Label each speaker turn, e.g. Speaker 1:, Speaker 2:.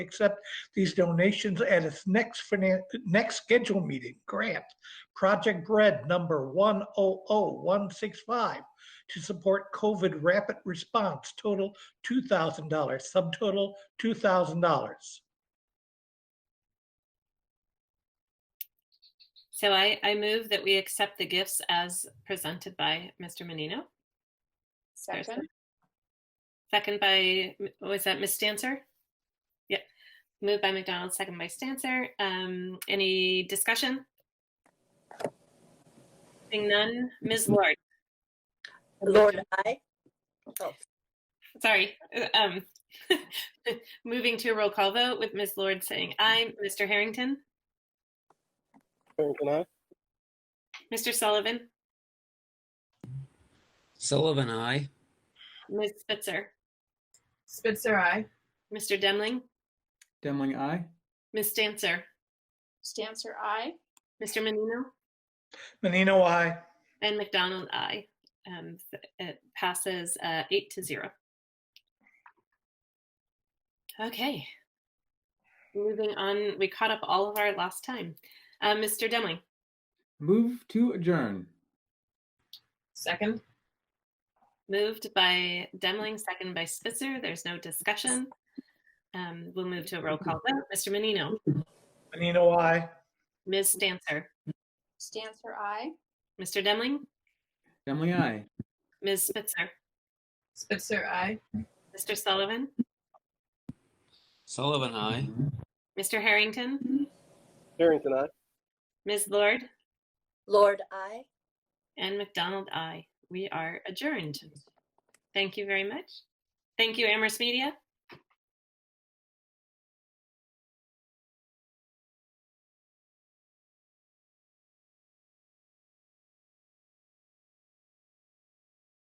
Speaker 1: accept these donations at its next finan, next scheduled meeting. Grant, Project Bread Number 100165 to support COVID rapid response, total $2,000, subtotal $2,000.
Speaker 2: So I, I move that we accept the gifts as presented by Mr. Menino. There's
Speaker 3: Second,
Speaker 2: Second by, was that Ms. Stancer? Yeah. Moved by McDonald, second by Stancer. Um, any discussion? Seeing none. Ms. Lord,
Speaker 4: Lord, I.
Speaker 2: sorry. Um, moving to a roll call vote with Ms. Lord saying aye. Mr. Harrington,
Speaker 5: Harrington, aye.
Speaker 2: Mr. Sullivan,
Speaker 6: Sullivan, I.
Speaker 2: Ms. Spitzer,
Speaker 7: Spitzer, aye.
Speaker 2: Mr. Demling,
Speaker 8: Demling, aye.
Speaker 2: Ms. Stancer,
Speaker 3: Stancer, I.
Speaker 2: Mr. Menino.
Speaker 1: Menino, I.
Speaker 2: And McDonald, aye. Um, th- it passes uh, eight to zero. Okay. Moving on, we caught up all of our last time. Uh, Mr. Demling,
Speaker 8: Move to adjourn.
Speaker 7: Second,
Speaker 2: moved by Demling, second by Spitzer. There's no discussion. Um, we'll move to a roll call vote. Mr. Menino,
Speaker 1: Menino, I.
Speaker 2: Ms. Stancer,
Speaker 3: Stancer, I.
Speaker 2: Mr. Demling,
Speaker 8: Demling, aye.
Speaker 2: Ms. Spitzer,
Speaker 7: Spitzer, aye.
Speaker 2: Mr. Sullivan,
Speaker 6: Sullivan, I.
Speaker 2: Mr. Harrington,
Speaker 5: Harrington, aye.
Speaker 2: Ms. Lord,
Speaker 4: Lord, I.
Speaker 2: And McDonald, I. We are adjourned. Thank you very much. Thank you, Amherst Media.